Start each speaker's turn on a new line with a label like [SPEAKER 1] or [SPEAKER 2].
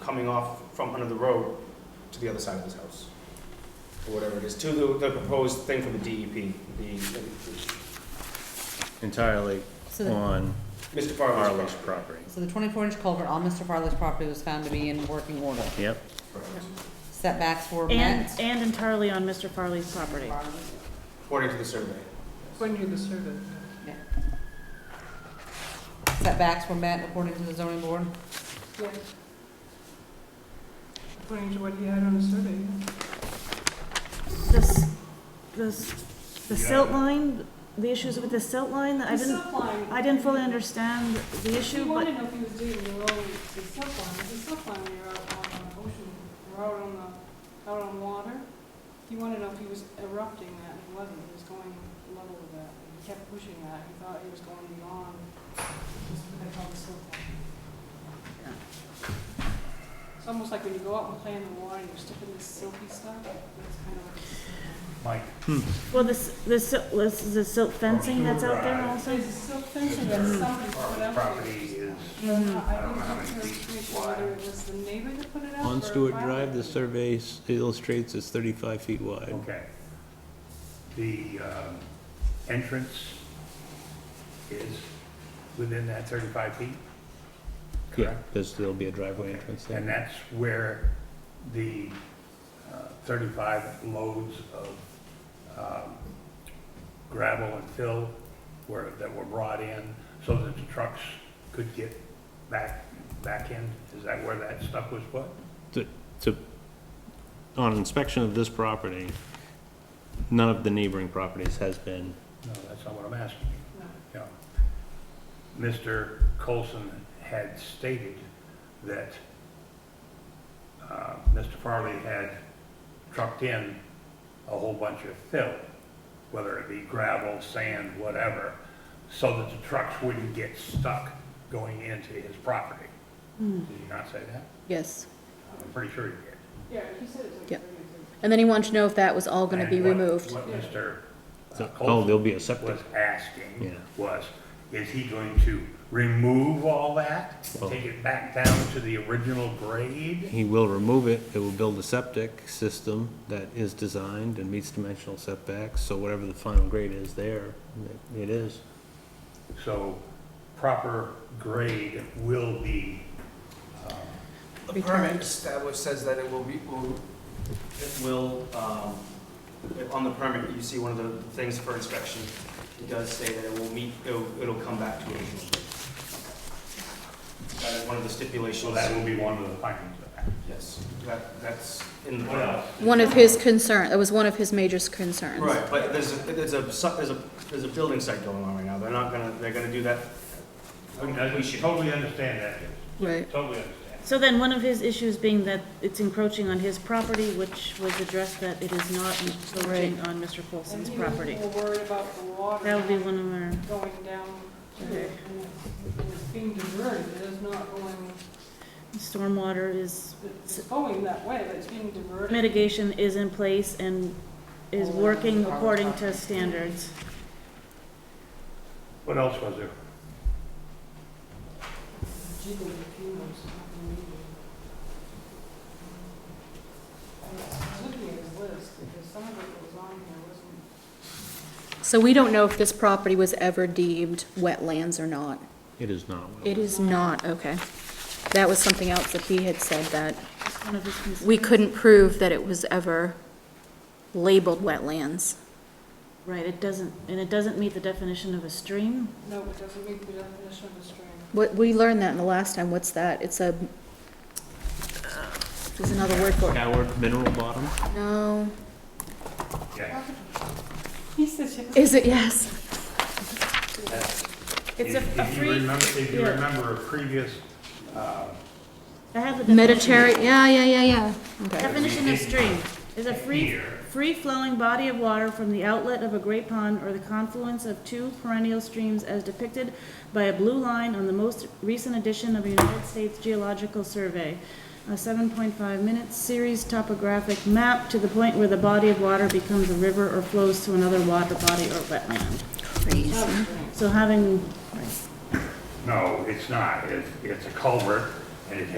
[SPEAKER 1] coming off from under the road to the other side of his house. Or whatever it is, to the, the proposed thing from the DEP, the,
[SPEAKER 2] entirely
[SPEAKER 3] So the,
[SPEAKER 2] on
[SPEAKER 1] Mr. Farley's
[SPEAKER 2] Harley's
[SPEAKER 1] property.
[SPEAKER 2] property.
[SPEAKER 3] so the twenty-four inch culvert on Mr. Farley's property was found to be in working order.
[SPEAKER 2] Yep,
[SPEAKER 1] Correct.
[SPEAKER 3] Setbacks were
[SPEAKER 4] And,
[SPEAKER 3] met.
[SPEAKER 4] and entirely on Mr. Farley's property.
[SPEAKER 1] According to the survey.
[SPEAKER 5] When you the survey.
[SPEAKER 3] Setbacks were met according to the zoning board.
[SPEAKER 5] Yes. According to what he had on the survey, yeah.
[SPEAKER 4] This, this, the silt line, the issues with the silt line, I
[SPEAKER 5] The
[SPEAKER 4] didn't,
[SPEAKER 5] silk line.
[SPEAKER 4] I didn't fully understand the
[SPEAKER 5] She
[SPEAKER 4] issue,
[SPEAKER 5] wanted
[SPEAKER 4] but
[SPEAKER 5] to know if he was digging the road, the silk line, the silk line, you're out on the ocean, you're out on the, out on water. He wanted to know if he was erupting that, and he wasn't, he was going level with that, and he kept pushing that, he thought he was going beyond, just what they call the silk line.
[SPEAKER 4] Yeah.
[SPEAKER 5] It's almost like when you go out and play in the water, you're sticking this silky stuff, that's kind of what the silk line is.
[SPEAKER 4] well, this, this, sil- this is the silt fencing that's out there
[SPEAKER 5] So
[SPEAKER 4] also?
[SPEAKER 5] it's a "Oh, silk fencing that somebody put up there. Uh,
[SPEAKER 4] Um,
[SPEAKER 5] I don't know how many feet wide. Whether it was the neighbor that put it up
[SPEAKER 6] On
[SPEAKER 5] or
[SPEAKER 6] Stewart
[SPEAKER 5] private.
[SPEAKER 6] Drive, the survey s- illustrates it's 35 feet wide.
[SPEAKER 7] Okay. The um, entrance is within that 35 feet?
[SPEAKER 6] Yeah,
[SPEAKER 7] Correct.
[SPEAKER 6] there's, there'll be a driveway entrance
[SPEAKER 7] And
[SPEAKER 6] there.
[SPEAKER 7] that's where the uh, 35 loads of um, gravel and fill were, that were brought in so that the trucks could get back, back in? Is that where that stuff was put?
[SPEAKER 2] on inspection of this property, none of the neighboring properties has been,
[SPEAKER 7] No, that's not what I'm asking you.
[SPEAKER 5] No.
[SPEAKER 7] Yeah. Mr. Colson had stated that uh, Mr. Farley had trucked in a whole bunch of fill, whether it be gravel, sand, whatever, so that the trucks wouldn't get stuck going into his property. Did you not say that?
[SPEAKER 8] Yes,
[SPEAKER 7] I'm pretty sure you did.
[SPEAKER 5] Yeah, he said it's like.
[SPEAKER 8] Yeah.
[SPEAKER 5] very good.
[SPEAKER 8] and then he wanted to know if that was all gonna be
[SPEAKER 7] And what-
[SPEAKER 8] removed.
[SPEAKER 7] What Mr.
[SPEAKER 2] So- oh,
[SPEAKER 7] Colson
[SPEAKER 2] there'll be a septic.
[SPEAKER 7] was asking
[SPEAKER 2] Yeah.
[SPEAKER 7] was, is he going to remove all that?
[SPEAKER 2] Well-
[SPEAKER 7] Take it back down to the original grade?
[SPEAKER 2] He will remove it, it will build a septic system that is designed and meets dimensional setbacks, so whatever the final grade is there, it- it is.
[SPEAKER 7] So proper grade will be,
[SPEAKER 1] The permit established says that it will be, will- it will, um, if on the permit, you see one of the things for inspection, it does say that it will meet, it'll, it'll come back to original. grade. That is one of the
[SPEAKER 7] so
[SPEAKER 1] stipulations,
[SPEAKER 7] that will be one of the findings of that.
[SPEAKER 1] yes, that, that's in the.
[SPEAKER 7] What else?
[SPEAKER 8] One of his concern, that was one of his major concerns.
[SPEAKER 1] Right, but there's, a- there's a, su- there's a, there's a building site going on right now, they're not gonna, they're gonna do that.
[SPEAKER 7] I mean, I- We should totally understand that,
[SPEAKER 8] Right.
[SPEAKER 7] totally understand.
[SPEAKER 4] So then, one of his issues being that it's encroaching on his property, which was addressed that it is not encroaching on Mr.
[SPEAKER 5] And
[SPEAKER 4] Colson's
[SPEAKER 5] he was
[SPEAKER 4] property.
[SPEAKER 5] more worried about the water.
[SPEAKER 4] That would be one of our,
[SPEAKER 5] Going down to it, and it's- and it's being diverted, it is not going,
[SPEAKER 4] stormwater is,
[SPEAKER 5] it's going that way, but it's being diverted.
[SPEAKER 4] mitigation is in place and is working according to standards.
[SPEAKER 7] What else was there?
[SPEAKER 5] Jiggle the fumes, not the medium. I was looking at his list, because some of it that was on here wasn't
[SPEAKER 8] So we don't know if this property was ever deemed wetlands or not.
[SPEAKER 2] It is not.
[SPEAKER 8] It is not, okay. That was something else that he had said that
[SPEAKER 4] That's one of his concerns.
[SPEAKER 8] we couldn't prove that it was ever labeled wetlands.
[SPEAKER 4] Right, it doesn't, and it doesn't meet the definition of a stream.
[SPEAKER 5] No, it doesn't meet the definition of a stream.
[SPEAKER 8] What, we learned that in the last time, what's that? It's a, there's another word for it.
[SPEAKER 2] Howard Mineral Bottom?
[SPEAKER 8] No,
[SPEAKER 7] Yeah.
[SPEAKER 5] He said,
[SPEAKER 8] is it, yes.
[SPEAKER 4] It's a
[SPEAKER 7] If-
[SPEAKER 4] a
[SPEAKER 7] If you
[SPEAKER 4] free,
[SPEAKER 7] remember, if you
[SPEAKER 4] yeah.
[SPEAKER 7] remember a previous, uh,
[SPEAKER 4] I have the definition.
[SPEAKER 8] Mediterranean, yeah, yeah, yeah, yeah. Okay.
[SPEAKER 4] Definition of stream is a free,
[SPEAKER 7] here,
[SPEAKER 4] free-flowing body of water from the outlet of a great pond or the confluence of two perennial streams as depicted by a blue line on the most recent edition of a United States Geological Survey, a seven point five minute series topographic map to the point where the body of water becomes a river or flows to another water body or wetland.
[SPEAKER 8] Crazy.
[SPEAKER 4] So having
[SPEAKER 7] no, it's not. It's, it's a culvert and it